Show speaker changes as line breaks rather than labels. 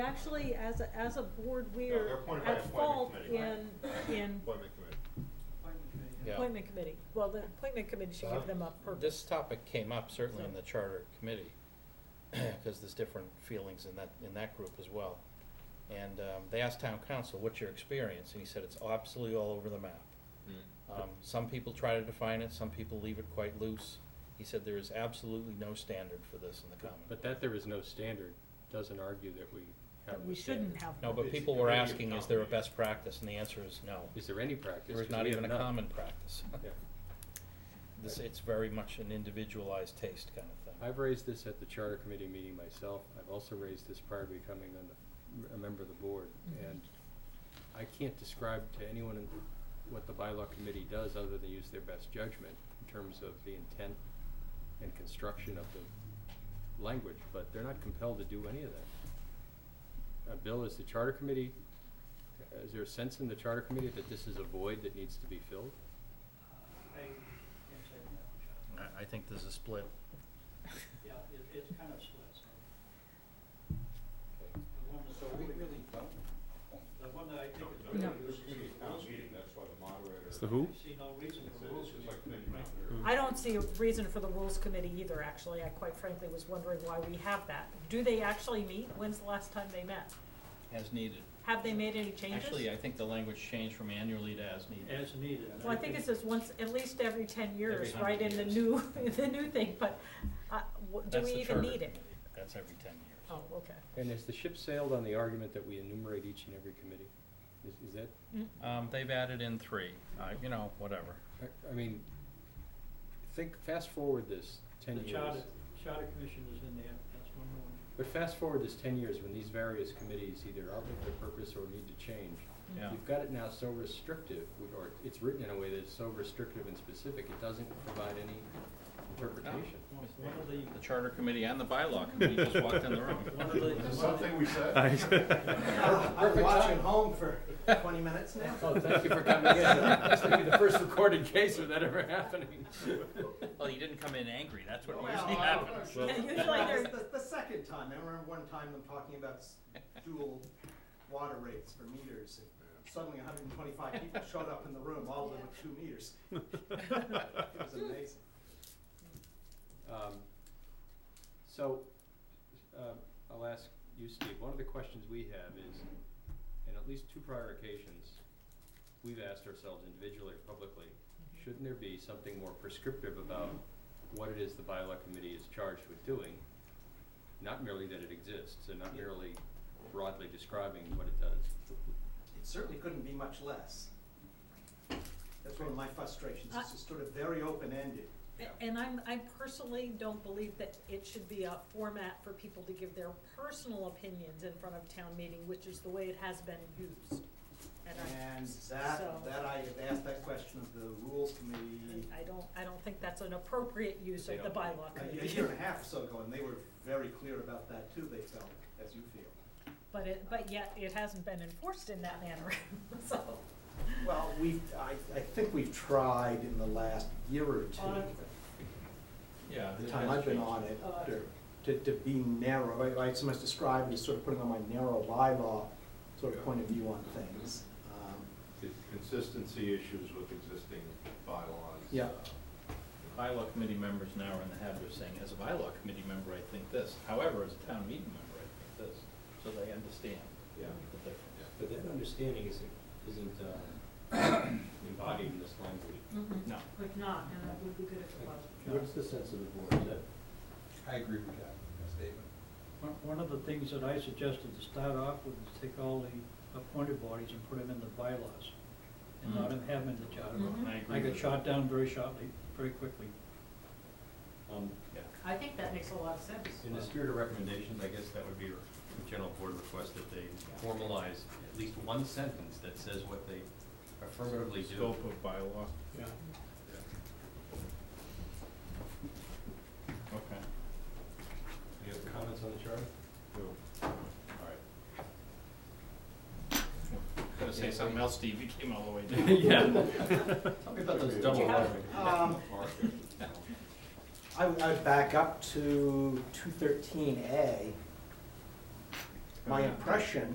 actually, as a, as a board,
No, they're
we're
appointed by
at
appointment
fault
committee,
in, in
Appointment committee.
Yeah.
appointment committee. Well, the appointment committee should give them up purpose.
This topic came up certainly in the charter committee, because there's different feelings in that, in that group as well. And um, they asked town council, what's your experience? And he said, it's absolutely all over the map. Um, Some people try to define it, some people leave it quite loose. He said, there is absolutely no standard for this in the common.
But that there is no standard doesn't argue that we have.
But
no
we shouldn't
standard.
have.
No, but
It's
people were
really a
asking, is there a
combination.
best practice? And the answer is no.
Is there any practice?
There is
'Cause
not
we
even a
have none.
common practice.
Yeah.
This, it's very much an individualized taste kind of thing.
I've raised this at the charter committee meeting myself. I've also raised this prior to becoming on the- a member of the board.
Mhm.
And I can't describe to anyone in what the bylaw committee does other than use their best judgment in terms of the intent and construction of the language, but they're not compelled to do any of that. Uh, Bill, is the charter committee, is there a sense in the charter committee that this is a void that needs to be filled?
I can't say that, Chuck.
I, I think there's a split.
Yeah, it, it's kind of split, so.
Okay.
The one that's.
So we really don't.
The one that I think is.
No.
really
This is
loose
gonna be a
is
town
rules.
meeting, that's why the moderator.
It's the who?
I see no reason
It's
for
a-
rules.
it's just like committee committee.
I don't see a reason for the rules committee either, actually. I quite frankly was wondering why we have that. Do they actually meet? When's the last time they met?
As needed.
Have they made any changes?
Actually, I think the language changed from annually to as needed.
As needed.
Well, I think it says once, at least every ten years,
Every
right, in the
100
new, the new thing, but, uh, w- do
That's
we
the
even
charter
need it?
committee. That's every ten years.
Oh, okay.
And has the ship sailed on the argument that we enumerate each and every committee? Is, is that
Oh.
Um, they've added in three, uh, you know, whatever.
I- I mean, think, fast forward this ten
The charter,
years.
charter commission is in there, that's one more.
But fast forward this ten years when these various committees either outlive their purpose or need to change.
Yeah.
You've got it now so restrictive, w- or it's written in a way that is so restrictive and specific, it doesn't provide any interpretation.
One one of the,
The charter committee and the bylaw committee just walked in the room.
one of the.
Is there
one of the-
something we said?
I've been
Perfect
watching
timing.
home for 20 minutes now.
Oh, thank you for coming in. This will be the first recorded case of that ever happening.
Well, you didn't come in angry, that's what
Well,
usually
I-
happens.
Oh, uh, Usually
It's
they're,
the, the second time. I remember one time them talking about s- dual water rates for meters. And suddenly 125 people showed up in the room, all of them with two meters. it was amazing.
Um, So, um, I'll ask you, Steve, one of the questions we have is, in at least two prior occasions, we've asked ourselves individually or publicly, shouldn't there be something more prescriptive about what it is the bylaw committee is charged with doing? Not merely that it exists, and not
Yeah.
merely broadly describing what it does.
It certainly couldn't be much less. That's one of my frustrations. It's just sort of very open-ended.
and I'm, I personally don't believe that it should be a format for people to give their personal opinions in front of town meeting, which is the way it has been used. And I,
And that,
so,
that I have asked that question of the rules committee
I don't, I don't think that's an appropriate use
They
of the
don't meet.
bylaw
a- a
committee.
year and a half or so ago, and they were very clear about that too, they felt, as you feel.
But it, but yet, it hasn't been enforced in that manner, so.
Well, we, I, I think we've tried in the last year or
On
two,
it.
Yeah.
the time I've been on it, to- to, to be narrow, I, I sometimes describe it as sort of putting on my narrow bylaw sort of point of view on things. Um,
It's Consistency issues with existing bylaws. uh,
Yeah.
Bylaw committee members now are in the habit of saying, as a bylaw committee member, I think this, however, as a town meeting member, I think this, so they understand
Yeah.
the difference.
But that understanding isn't, isn't uh, embodied in this language.
No.
If Mm-hmm. not, and it would be good if it was.
What's the sense of the board? Is that
I agree with that statement.
One, one of the things that I suggested to start off with is take all the appointed bodies and put them in the bylaws and not
Mm.
have them in the charter.
Mhm.
I
I
agree
got
with that.
shot down very shortly, very quickly.
Um,
Yeah.
I think that makes a lot of sense.
in the spirit of recommendations, I guess that would be a general board request that they formalize at least one sentence that says what they affirmatively do.
Scope of bylaw,
Yeah.
okay.
You have comments on the charter?
Who? All right.
Gonna say something else, Steve, you came all the way down.
Yeah. Tell me about those double
have-
lettering.
Um, I, would- I would back up to two thirteen A, My impression